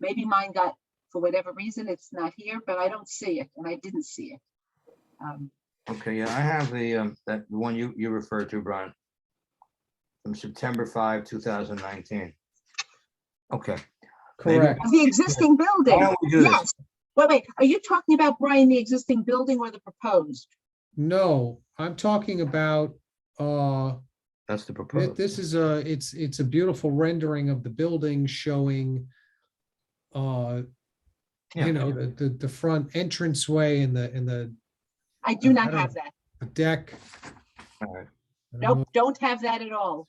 Maybe mine got, for whatever reason, it's not here, but I don't see it and I didn't see it. Um, Okay, yeah, I have the, um, that the one you, you referred to, Brian. From September five, two thousand nineteen. Okay, Maybe- Correct. The existing why building, don't we do this? yes. Wait, wait, are you talking about, Brian, the existing building or the proposed? No, I'm talking about, uh, That's the thi- proposal. this is a, it's, it's a beautiful rendering of the building showing, uh, Yeah. you know, the, the, the front entranceway and the, and the I do I not don't- have that. deck. Uh, All right. I don't know Nope, don't have that at all.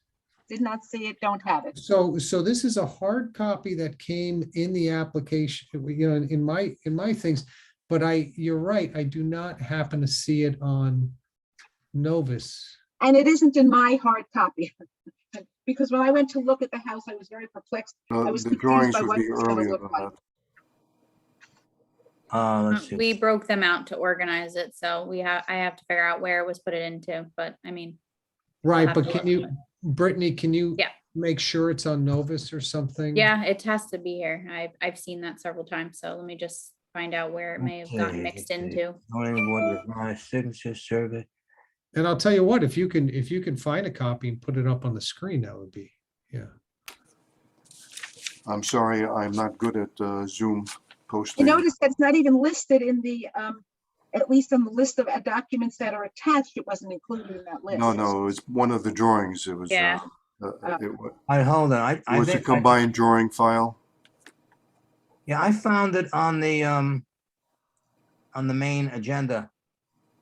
Did not see it, don't have it. So, so this is a hard copy that came in the application, you know, in my, in my things. But I, you're right, I do not happen to see it on Novus. And it isn't in my hard copy. Because when I went to look at the house, I was very perplexed. I Uh, was The confused drawings by would what be it was gonna earlier look than like. that. Uh, Uh, let's see. We broke them out to organize it, so we have, I have to figure out where it was put it into, but I mean, Right, have but to can you, look. Brittany, can you? Yeah. Make sure it's on Novus or something? Mm. yeah, it has to be here. I've, I've seen that several times, so let me just find out where it may have Okay, gotten mixed okay. into. Zoning board of my signature survey. And I'll tell you what, if you can, if you can find a copy and put it up on the screen, that would be, yeah. I'm sorry, I'm not good at uh, Zoom You posting. notice that's not even listed in the, um, at least on the list of uh, documents that are attached, it wasn't included in that list. No, no, it's one of the drawings. It was, uh, Yeah. uh, Uh, it wa- I, hold on, I, I was a think, I- combined drawing file. yeah, I found it on the, um, on the main agenda.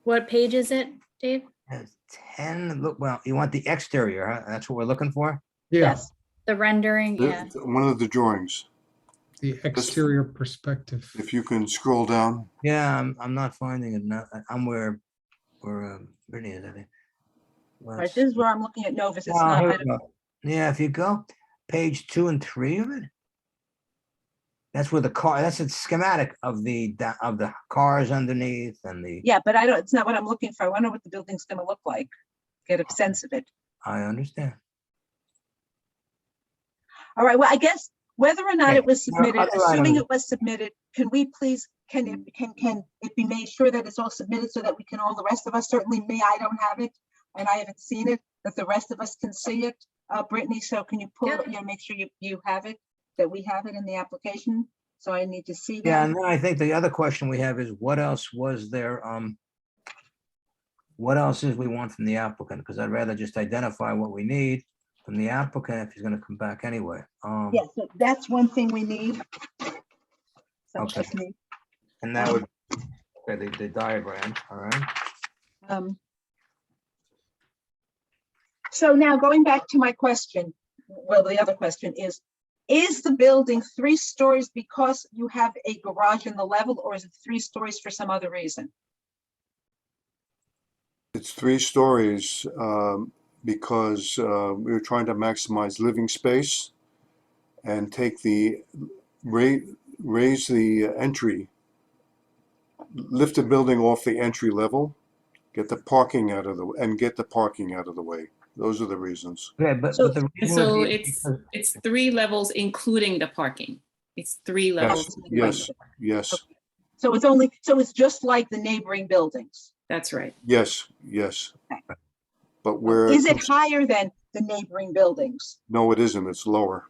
What page is it, Dave? It's Ten, look, well, you want the exterior, huh? That's what we're looking for? Yeah, Yes, The rendering, Th- yeah. th- One of the drawings. the exterior perspective. If you can scroll down, Yeah, I'm, I'm not finding it now. I- I'm where, where um, Brittany is, I think. right, Let's- this is where I'm looking at Novus. It's Oh, not, here I we go. Yeah, if you go, page two and three of it. That's where the car, that's a schematic of the, da- of the cars underneath and the, Yeah, but I don't, it's not what I'm looking for. I wonder what the building's gonna look like. Get a sense of it. I understand. All right, well, I guess whether or not Okay, it was now submitted, other assuming items. it was submitted, can we please, can it, can, can it be made sure that it's all submitted so that we can, all the rest of us, certainly me, I don't have it, and I haven't seen it, that the rest of us can see it. Uh, Brittany, so can you pull, Yeah. it, you know, make sure you, you have it, that we have it in the application? So I need to see Yeah, that. and then I think the other question we have is what else was there, um, what else is we want from the applicant? Because I'd rather just identify what we need from the applicant if he's gonna come back anyway. Um, Yes, so that's one thing we need. So Okay. just need, and that would, okay, the, the diagram, all right? um, So now going back to my question, well, the other question is, is the building three stories because you have a garage in the level or is it three stories for some other reason? it's three stories um, because uh, we were trying to maximize living space and take the, ra- raise the entry, lift the building off the entry level, get the parking out of the, and get the parking out of the way. Those are the reasons. Yeah, but, So- but the. reason would So be it's, because- it's three levels, including the parking. It's three levels. Yes, yes, Oh. So it's only, so it's just like the neighboring buildings. That's right. yes, yes. Okay. But where, Is it higher than the neighboring buildings? no, it isn't, it's lower.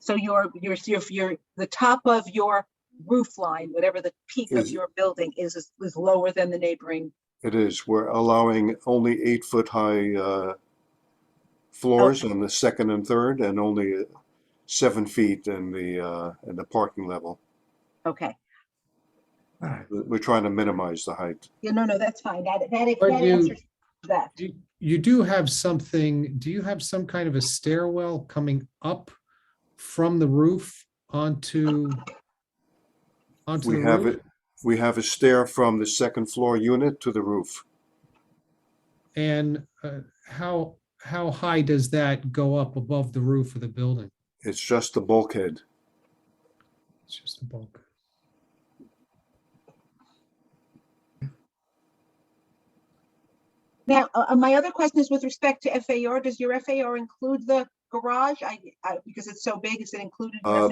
So your, your, your, your, the top of your roof line, whatever the peak of Is- your building is, is is lower than the neighboring. It is. We're allowing only eight foot high uh, floors on the second and third and only uh, seven feet in the, uh, in the parking level. Okay, all right. We- We're trying to minimize the height. yeah, no, no, that's fine. That, that, But that you- answers that. You, you do have something, do you have some kind of a stairwell coming up from the roof onto? Onto We the have roof? it, we have a stair from the second floor unit to the roof. And uh, how, how high does that go up above the roof of the building? It's just the bulkhead. It's just a bulk. Now, uh, uh, my other question is with respect to FAR, does your FAR include the garage? I, I, because it's so big, is it included? in Uh,